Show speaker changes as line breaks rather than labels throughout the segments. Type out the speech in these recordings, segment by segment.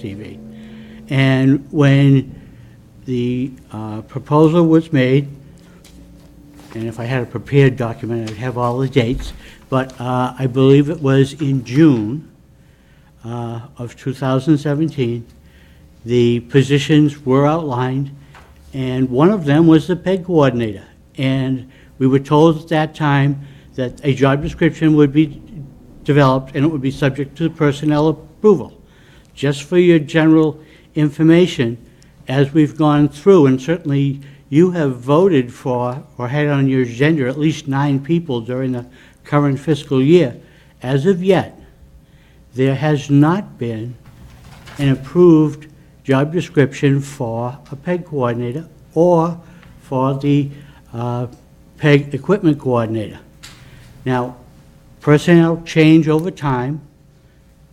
TV. And when the uh, proposal was made, and if I had a prepared document, I'd have all the dates, but uh, I believe it was in June uh, of 2017, the positions were outlined, and one of them was the PEG coordinator. And we were told at that time that a job description would be developed, and it would be subject to personnel approval. Just for your general information, as we've gone through, and certainly you have voted for, or had on your agenda, at least nine people during the current fiscal year. As of yet, there has not been an approved job description for a PEG coordinator or for the uh, PEG equipment coordinator. Now, personnel change over time,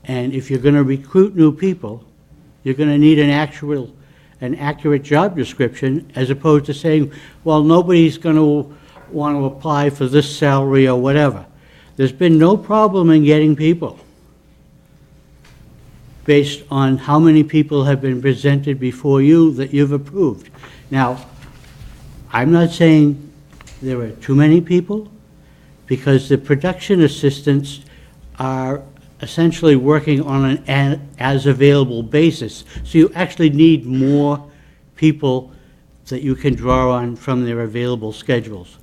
and if you're going to recruit new people, you're going to need an actual, an accurate job description, as opposed to saying, well, nobody's going to want to apply for this salary or whatever. There's been no problem in getting people based on how many people have been presented before you that you've approved. Now, I'm not saying there are too many people, because the production assistants are essentially working on an a- as-available basis. So you actually need more people that you can draw on from their available schedules.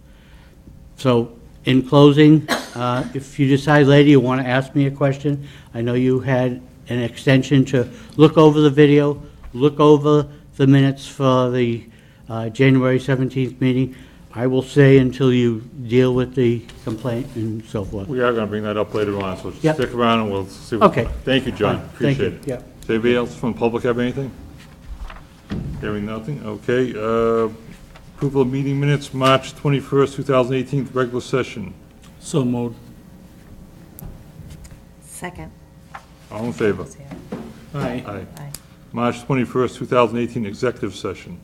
So, in closing, uh, if you decide later you want to ask me a question, I know you had an extension to look over the video, look over the minutes for the uh, January 17th meeting. I will say until you deal with the complaint and so forth.
We are going to bring that up later on, so
Yep.
stick around and we'll see. what-
Okay.
Thank you, John.
Fine. Thank you.
Appreciate it.
Yep.
Does anybody else from the public have anything? Hearing nothing, okay. uh, Approval of meeting minutes, March 21st, 2018, regular session.
So moved.
Second.
All in favor?
Aye.
Aye.
Aye.
March 21st, 2018, executive session.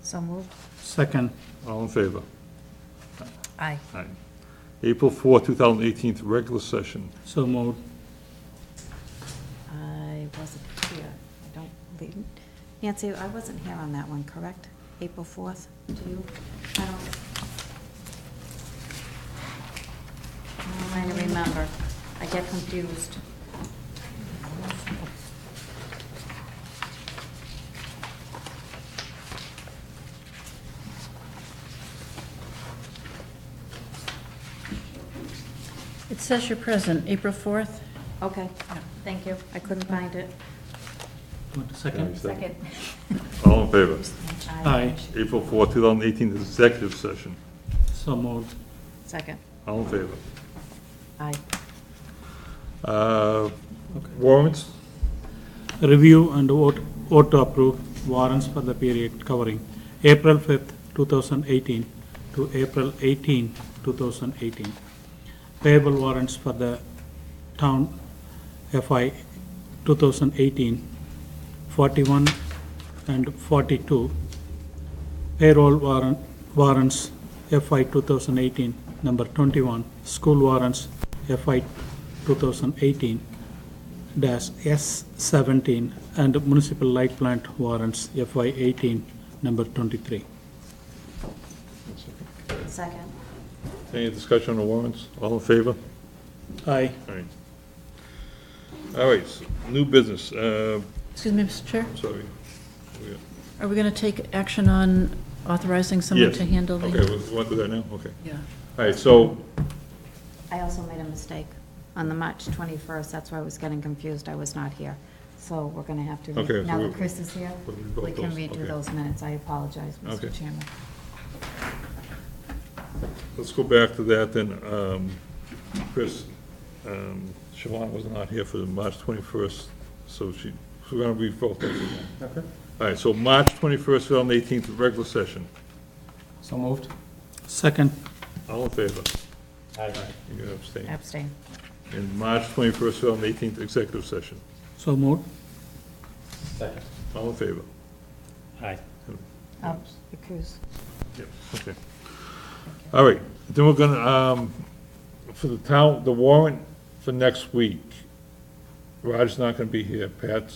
So moved.
Second.
All in favor?
Aye.
Aye. April 4th, 2018, regular session.
So moved.
I wasn't here. I don't believe, Nancy, I wasn't here on that one, correct? April 4th, do you? I don't. I'm trying to remember. I get confused.
It says you're present, April 4th.
Okay, thank you. I couldn't find it.
Want a Second.
Second.
All in favor?
Aye.
April 4th, 2018, executive session.
So moved.
Second.
All in favor?
Aye.
Uh, Warrants?
Review and vote, vote to approve warrants for the period covering April 5th, 2018 to April 18, 2018. Payable warrants for the town FI 2018, 41 and 42. Payroll warrant, warrants FI 2018, number 21. School warrants FI 2018, dash S seventeen and municipal light plant warrants FY eighteen, number twenty-three.
Second.
Any discussion on the warrants? All in favor?
Aye.
All right. All right, so new business, uh,
Excuse me, Mr. Chair,
sorry.
are we going to take action on authorizing someone
Yes.
to handle the?
Okay, we want to do that now? Okay.
Yeah.
All right, so,
I also made a mistake on the March 21st, that's why I was getting confused, I was not here. So we're going to have to,
Okay,
re-
so
now that
we-
Chris is here,
we'll revoke
we can
those, okay.
redo those minutes, I apologize,
Okay.
Mr. Chairman.
let's go back to that then. Um, Chris, um, Siobhan was not here for the March 21st, so she, we're going to read both of them. Okay. All right, so March 21st, 2018, regular session.
So moved.
Second,
All in favor? Aye. You can abstain.
Abstain.
And March 21st, 2018, executive session.
so moved.
Second.
All in favor?
Aye.
Um, Recuse.
Yep. Okay. All right, then we're gonna, um, for the town, the warrant for next week. Rod's not going to be here, Pat's